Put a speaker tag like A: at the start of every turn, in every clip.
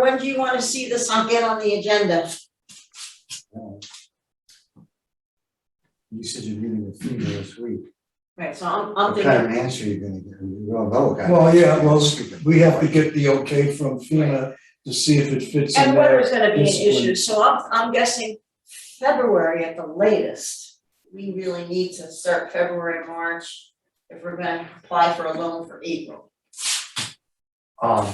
A: when do you wanna see this on, get on the agenda?
B: You said you're meeting with FEMA this week.
A: Right, so I'm, I'm
B: What kind
A: thinking,
B: of answer are you gonna get? We all know what kind of
C: Well, yeah,
B: answer.
C: well, We have to get the okay from FEMA to see if it fits in
A: and
C: there.
A: weather's gonna be an
C: this one.
A: issue, so I'm, I'm guessing February at the latest. We really need to start February, March, if we're gonna apply for a loan for April.
B: Um.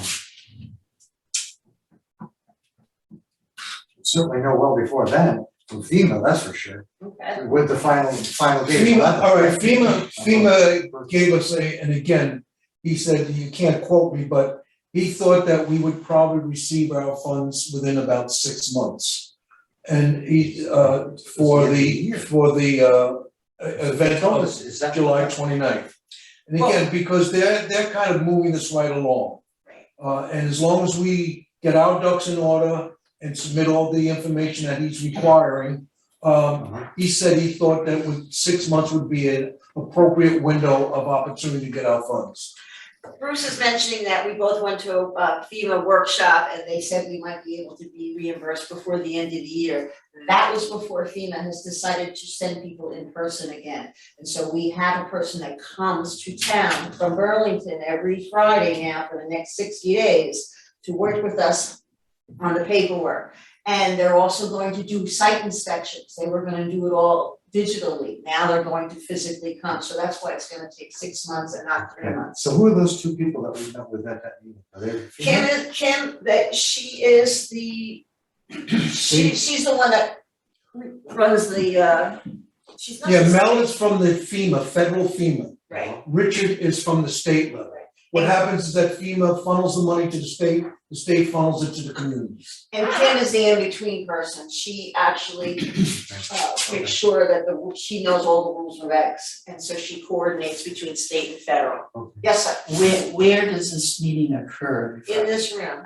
B: Certainly know well before then, from FEMA, that's for sure,
A: Okay.
B: with the final, final date.
C: FEMA, all right, FEMA, FEMA gave us a, and again, he said, you can't quote me, but he thought that we would probably receive our funds within about six months. And he, uh, for the, for the, uh, e- event
B: Told
C: of
B: us, is that
C: July 29th, And again, because they're, they're kind of moving this right along.
A: Right.
C: Uh, and as long as we get our ducks in order and submit all the information that he's requiring, um,
B: Uh-huh.
C: he said he thought that would, six months would be an appropriate window of opportunity to get our funds.
A: Bruce is mentioning that we both went to a FEMA workshop and they said we might be able to be reimbursed before the end of the year. That was before FEMA has decided to send people in person again. And so we have a person that comes to town from Burlington every Friday now for the next sixty days to work with us on the paperwork. And they're also going to do site inspections. They were gonna do it all digitally. Now they're going to physically come. So that's why it's gonna take six months and not three
B: Yeah,
A: months.
B: so who are those two people that we met with at that meeting? Are they
A: Kim
B: FEMA?
A: is, Kim, that she is the, she, she's the one that runs the, uh, she's not.
C: Yeah,
A: the
C: Mel
A: state,
C: is from the FEMA, federal FEMA.
A: Right,
C: Richard is from the state level. What happens is that FEMA funnels the money to the state, the state funnels it to the communities.
A: and Kim is the in-between person, she actually, uh,
B: Okay.
A: makes sure that the, ru- she knows all the rules and regs, and so she coordinates between state and federal.
B: Okay.
A: Yes, sir,
D: Where, where does this meeting occur?
A: in this room,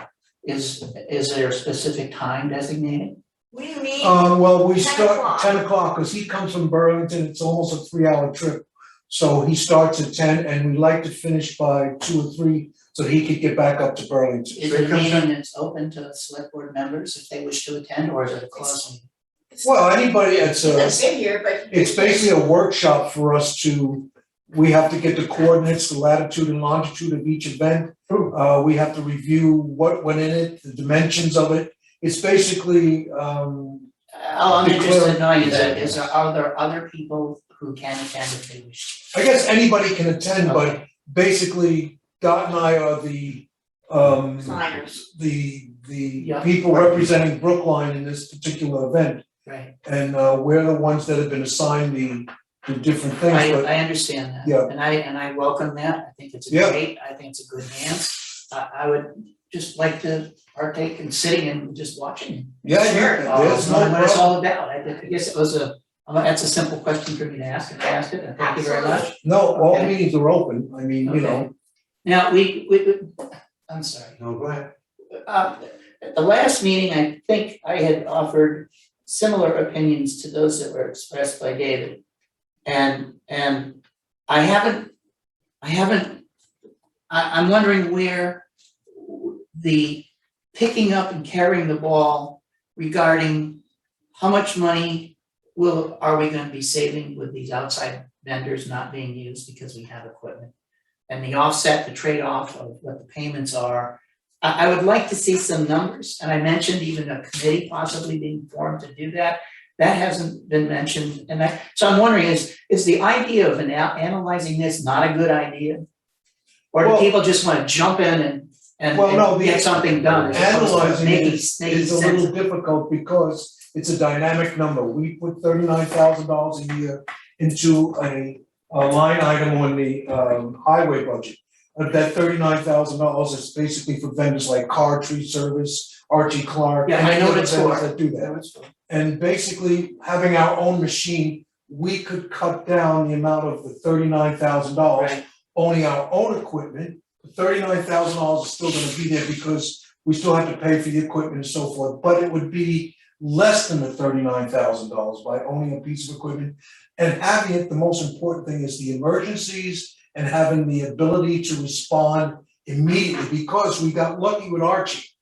D: Is, is there a specific time designated?
A: what do you mean?
C: Uh, well, we
A: 10
C: start
A: o'clock.
C: ten o'clock, cause he comes from Burlington, it's almost a three hour trip. So he starts at ten and we like to finish by two or three, so he could get back up to Burlington.
D: Is
B: They
D: the
B: come
D: meeting that's open to select board members if they wish to attend, or is it a closed meeting?
C: Well, anybody, it's a.
A: That's in here, but.
C: it's basically a workshop for us to, we have to get the coordinates, the latitude and longitude of each event. Uh, we have to review what went in it, the dimensions of it. It's basically, um,
D: All I'm interested in knowing is,
B: Declare-
D: is there, are there other people who can attend if they wish?
C: I guess anybody can attend, but
D: Okay.
C: basically Dot and I are the, um,
A: Signers.
C: the, the
D: Yeah.
C: people representing Brookline in this particular event.
D: Right,
C: And, uh, we're the ones that have been assigned the, the different things,
D: I,
C: but
D: I understand that.
C: Yeah.
D: And I, and I welcome that, I think it's
C: Yeah.
D: a great, I think it's a good dance. I, I would just like to partake in sitting and just watching.
C: yeah,
A: Sure.
C: yeah,
D: Uh,
C: there's no
D: what- what it's
C: problem.
D: all about, I I guess it was a, uh, that's a simple question for me to ask, and I asked it, and thank you very much.
C: No, all
D: Okay.
C: meetings are open, I mean, you know,
D: Okay. Now, we, we, we- I'm sorry,
B: No, go ahead.
D: uh, at the last meeting, I think I had offered similar opinions to those that were expressed by David. And, and I haven't, I haven't, I, I'm wondering where the picking up and carrying the ball regarding how much money will, are we gonna be saving with these outside vendors not being used because we have equipment? And the offset, the trade-off of what the payments are. I, I would like to see some numbers, and I mentioned even a committee possibly being formed to do that. That hasn't been mentioned, and I, so I'm wondering, is, is the idea of an- analyzing this not a good idea? Or do
C: Well-
D: people just wanna jump in and, and
C: Well, no,
D: and
C: the-
D: get something done? as opposed to
C: Analyzing it
D: making- making
C: It's a
D: sense
C: little difficult because it's a dynamic number. We put thirty-nine thousand dollars a year into a, a line item on the, um, highway budget. But that thirty-nine thousand dollars is basically for vendors like Car Tree Service, Archie Clark,
D: Yeah, I
C: and
D: know what
C: other
D: it's
C: vendors
D: for.
C: that do that.
D: That was-
C: And basically, having our own machine, we could cut down the amount of the thirty-nine thousand dollars
D: Right.
C: owning our own equipment, thirty-nine thousand dollars is still gonna be there because we still have to pay for the equipment and so forth, but it would be less than the thirty-nine thousand dollars by owning a piece of equipment. And having it, the most important thing is the emergencies and having the ability to respond immediately, because we got lucky with Archie.